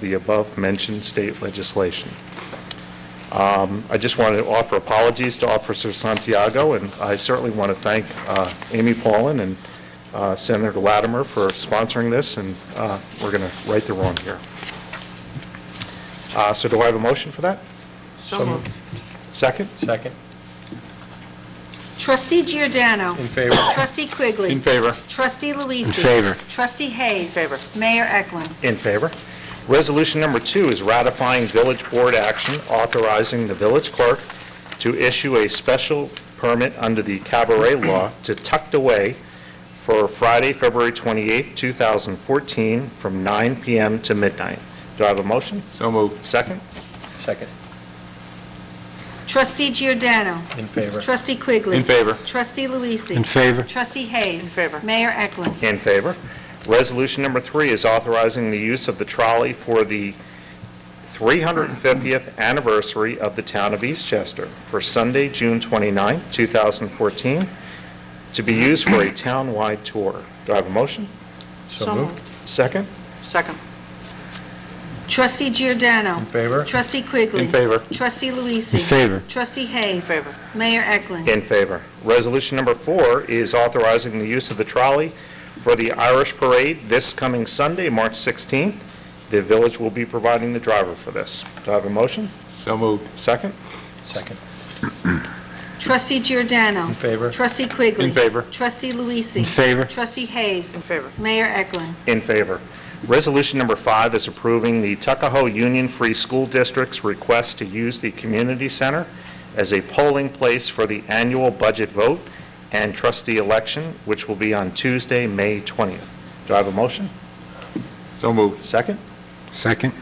the above-mentioned state legislation. Um, I just want to offer apologies to Officer Santiago, and I certainly want to thank uh, Amy Paulin and uh, Senator Latimer for sponsoring this, and uh, we're going to right the wrong here. Uh, So do I have a motion for that? So moved. Second? Second. Trustee Giordano. In favor. Trustee Quigley. favor. Trustee Luise. In favor. Trustee Hayes. In favor. Mayor Eklund. In favor. Resolution number two is ratifying village board action authorizing the village clerk to issue a special permit under the cabaret law to tucked away for Friday, February 28, 2014, from 9 p.m. to midnight. Do I have a motion? So moved. Second? Second. Trustee Giordano. In favor. Trustee Quigley. favor. Trustee Luise. In favor? Trustee Hayes. In favor. Mayor Eklund. In favor. Resolution number three is authorizing the use of the trolley for the 350th anniversary of the town of Eastchester for Sunday, June 29, 2014, to be used for a town-wide tour. Do I have a motion? So moved. Second? Second. Trustee Giordano. In favor. Trustee Quigley. In favor. Trustee Luise. In favor. Trustee Hayes. In favor. Mayor Eklund. In favor. Resolution number four is authorizing the use of the trolley for the Irish Parade this coming Sunday, March 16th. The village will be providing the driver for this. Do I have a motion? So moved. Second? Second. Trustee Giordano. In favor. Trustee Quigley. In favor. Trustee Luise. In favor? Trustee Hayes. In favor. Mayor Eklund. In favor. Resolution number five is approving the Tuckahoe Union Free School District's request to use the community center as a polling place for the annual budget vote and trustee election, which will be on Tuesday, May 20th. Do I have a motion? So moved. Second? Second?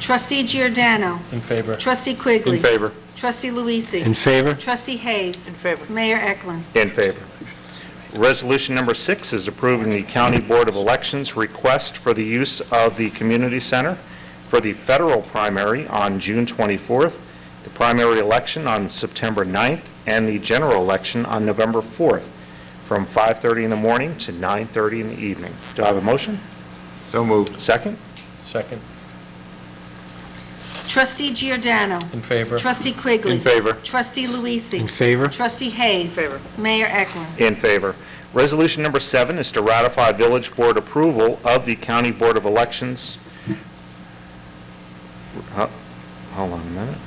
Trustee Giordano. In favor. Trustee Quigley. favor. Trustee In Luise. favor? Trustee Hayes. In favor. Mayor Eklund. In favor. Resolution number six is approving the County Board of Elections' request for the use of the community center for the federal primary on June 24th, the primary election on September 9th, and the general election on November 4th, from 5:30 in the morning to 9:30 in the evening. Do I have a motion? So moved. Second? Second. Trustee Giordano. In favor. Trustee Quigley. favor. Trustee In Luise. favor? Trustee Hayes. In favor. Mayor Eklund. In favor. Resolution number seven is to ratify village board approval of the county board of elections. Uh, Hold on a minute.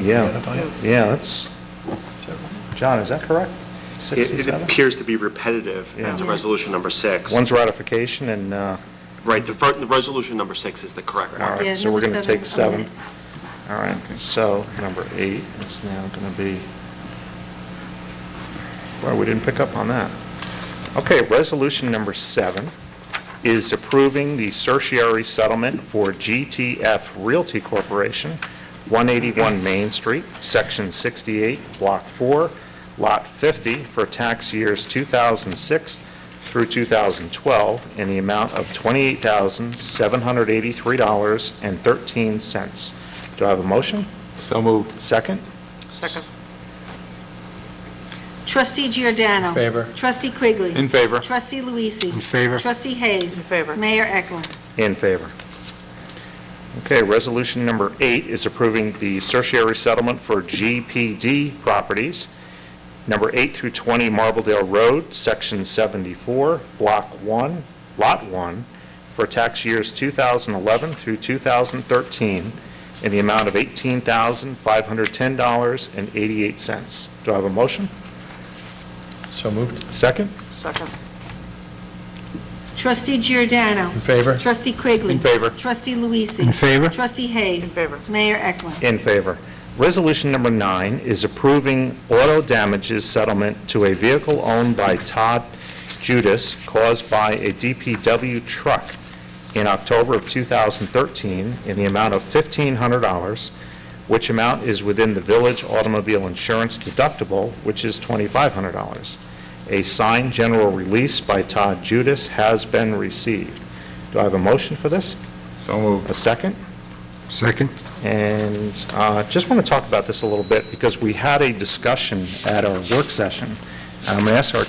Yeah. Yeah, that's, John, is that correct? Six and It it seven? appears to be repetitive as to Yeah. resolution number six. One's ratification and, uh, Right, the fir- the resolution number six is the correct all one. Yeah, right, so we're going number to seven. take seven. All right, so number eight is now going to be, well, we didn't pick up on that. Okay, resolution number seven is approving the certiorari settlement for GTF Realty Corporation, 181 Main Street, Section 68, Block 4, Lot 50, for tax years 2006 through 2012 in the amount of $28,783.13. Do I have a motion? So moved. Second? Second. Trustee Giordano. In favor. Trustee Quigley. In favor. Trustee Luise. In favor? Trustee Hayes. In favor. Mayor Eklund. In favor. Okay, resolution number eight is approving the certiorari settlement for GPD properties, number eight through 20 Marbledale Road, Section 74, Block 1, Lot 1, for tax years 2011 through 2013, in the amount of $18,510.88. Do I have a motion? So moved. Second? Second. Trustee Giordano. In favor. Trustee Quigley. In favor. Trustee Luise. In favor? Trustee In Hayes. favor. Mayor Eklund. In favor. Resolution number nine is approving auto damages settlement to a vehicle owned by Todd Judas caused by a DPW truck in October of 2013 in the amount of $1,500, which amount is within the village automobile insurance deductible, which is $2,500. A signed general release by Todd Judas has been received. Do I have a motion for this? So moved. A second? Second? And uh, just want to talk about this a little bit, because we had a discussion at our work session. And I'm going to ask our